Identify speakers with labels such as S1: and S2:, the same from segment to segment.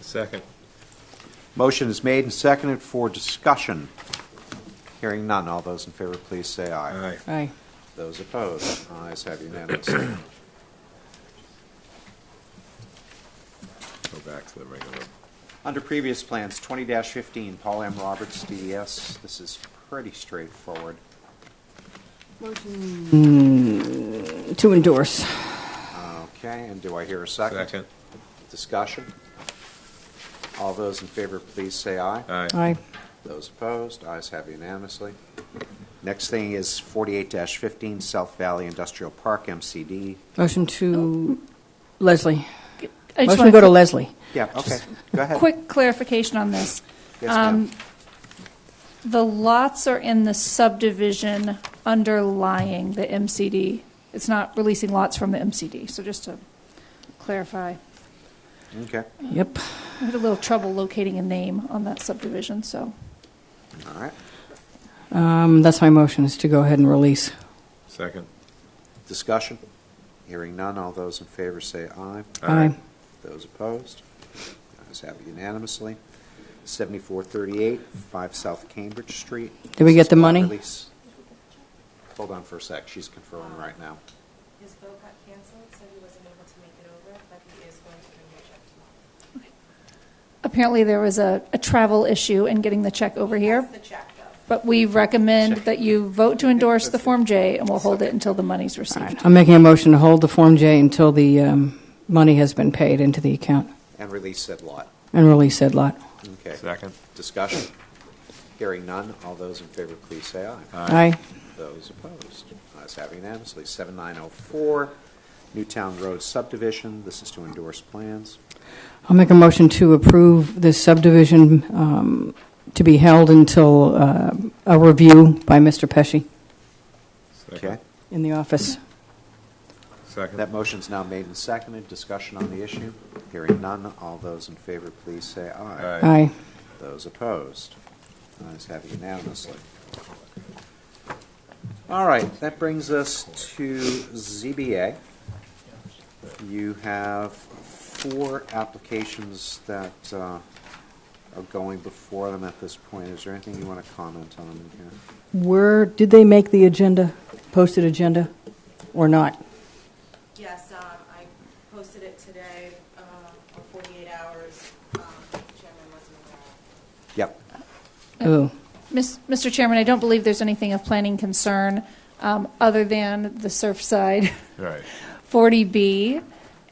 S1: Second.
S2: Motion is made and seconded for discussion. Hearing none, all those in favor, please say aye.
S3: Aye.
S2: Those opposed, ayes have unanimously.
S1: Go back to the regular.
S2: Under previous plans, 20-15, Paul M. Roberts, DDS, this is pretty straightforward.
S3: To endorse.
S2: Okay, and do I hear a second?
S1: Second.
S2: Discussion? All those in favor, please say aye.
S1: Aye.
S3: Aye.
S2: Those opposed, ayes have unanimously. Next thing is 48-15, South Valley Industrial Park, MCD.
S3: Motion to Leslie.
S4: I
S3: Motion
S4: just want
S3: to
S4: a
S3: go to
S4: quick-
S3: Leslie.
S2: Yeah, okay, go ahead.
S4: Quick clarification on this.
S2: Yes, ma'am.
S4: Um, The lots are in the subdivision underlying the MCD. It's not releasing lots from the MCD, so just to clarify.
S2: Okay,
S3: Yep.
S4: I had a little trouble locating a name on that subdivision, so.
S2: all right.
S3: Um, That's my motion, is to go ahead and release.
S1: Second.
S2: Discussion? Hearing none, all those in favor say aye.
S3: Aye.
S2: Those opposed? Ayes have unanimously. 7438, 5 South Cambridge Street.
S3: Did we get the
S2: This is lot
S3: money?
S2: release. Hold on for a sec, she's confirming right now.
S5: His vote got canceled, so he wasn't able to make it over, but he is going to bring the check tomorrow.
S4: Apparently, there was a, a travel issue in getting the check over here,
S5: That's the check, though.
S4: but we recommend that you vote to endorse the Form J, and we'll hold it until the money's
S3: All
S4: received.
S3: right. I'm making a motion to hold the Form J until the um, money has been paid into the account
S2: And release said lot.
S3: and release said lot.
S2: Okay.
S1: Second.
S2: Discussion? Hearing none, all those in favor, please say aye.
S3: Aye.
S2: Those opposed? Ayes have unanimously. 7904, Newtown Road subdivision, this is to endorse plans.
S3: I'll make a motion to approve this subdivision um, to be held until uh, a review by Mr. Pesci
S1: Second.
S2: Okay?
S3: in the office.
S2: That
S1: Second.
S2: motion's now made and seconded. Discussion on the issue? Hearing none. All those in favor, please say aye.
S1: Aye.
S3: Aye.
S2: Those opposed? Ayes have it unanimously. All right, that brings us to ZBA. You have four applications that uh, are going before them at this point. Is there anything you want to comment on in here?
S3: Where, did they make the agenda, posted agenda, or not?
S5: Yes, um, I posted it today, um, for forty-eight hours, um, chairman wasn't aware.
S2: Yep.
S3: Oh,
S4: Miss- Mr. Chairman, I don't believe there's anything of planning concern um, other than the Surfside
S1: Right.
S4: 40B.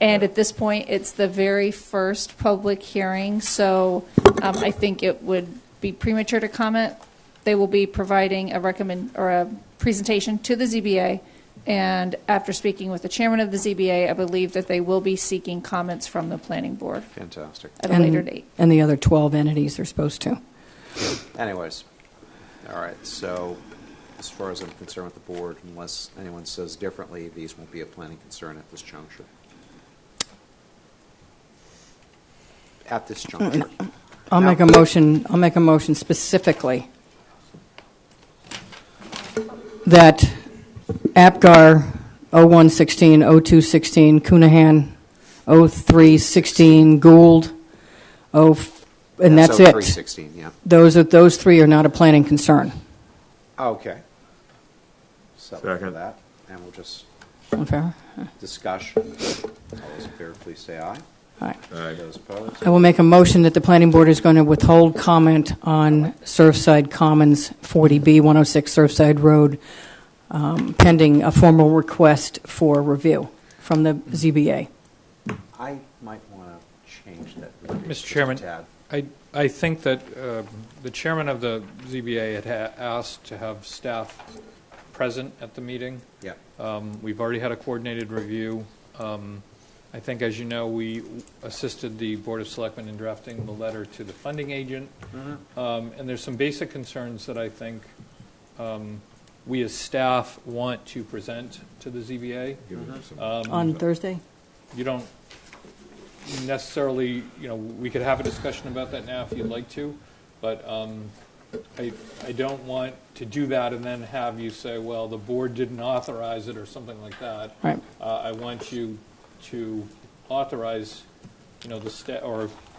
S4: And at this point, it's the very first public hearing, so um, I think it would be premature to comment. They will be providing a recommend, or a presentation to the ZBA, and after speaking with the chairman of the ZBA, I believe that they will be seeking comments from the planning board
S2: Fantastic.
S4: at a later date.
S3: And the other 12 entities are supposed to.
S2: Anyways, all right, so as far as I'm concerned with the board, unless anyone says differently, these won't be a planning concern at this juncture. At this juncture.
S3: Mm, I'll make a motion, I'll make a motion specifically that APGAR 0116, 0216, Coonahan, 0316, Gould, 0, and that's
S2: oh Three
S3: it.
S2: sixteen, yeah.
S3: Those are, those three are not a planning concern.
S2: Okay. Settle for
S1: Second.
S2: that, and we'll just
S3: Okay? All
S2: discuss. All those in favor, please say aye.
S3: right.
S1: Aye.
S2: Those opposed?
S3: I will make a motion that the planning board is going to withhold comment on Surfside Commons 40B 106 Surfside Road um, pending a formal request for review from the ZBA.
S2: I might want to change that. verbiage just
S6: Mr.
S2: a
S6: Chairman,
S2: tad.
S6: I, I think that uh, the chairman of the ZBA had ha- asked to have staff present at the meeting.
S2: Yeah,
S6: Um, We've already had a coordinated review. Um, I think, as you know, we assisted the Board of Selectmen in drafting the letter to the funding agent. Um, And there's some basic concerns that I think um, we as staff want to present to the ZBA.
S1: Give it some-
S3: On Thursday?
S6: you don't necessarily, you know, we could have a discussion about that now if you'd like to, but um, I, I don't want to do that and then have you say, well, the board didn't authorize it or something like that.
S3: Right.
S6: Uh, I want you to authorize, you know, the sta, or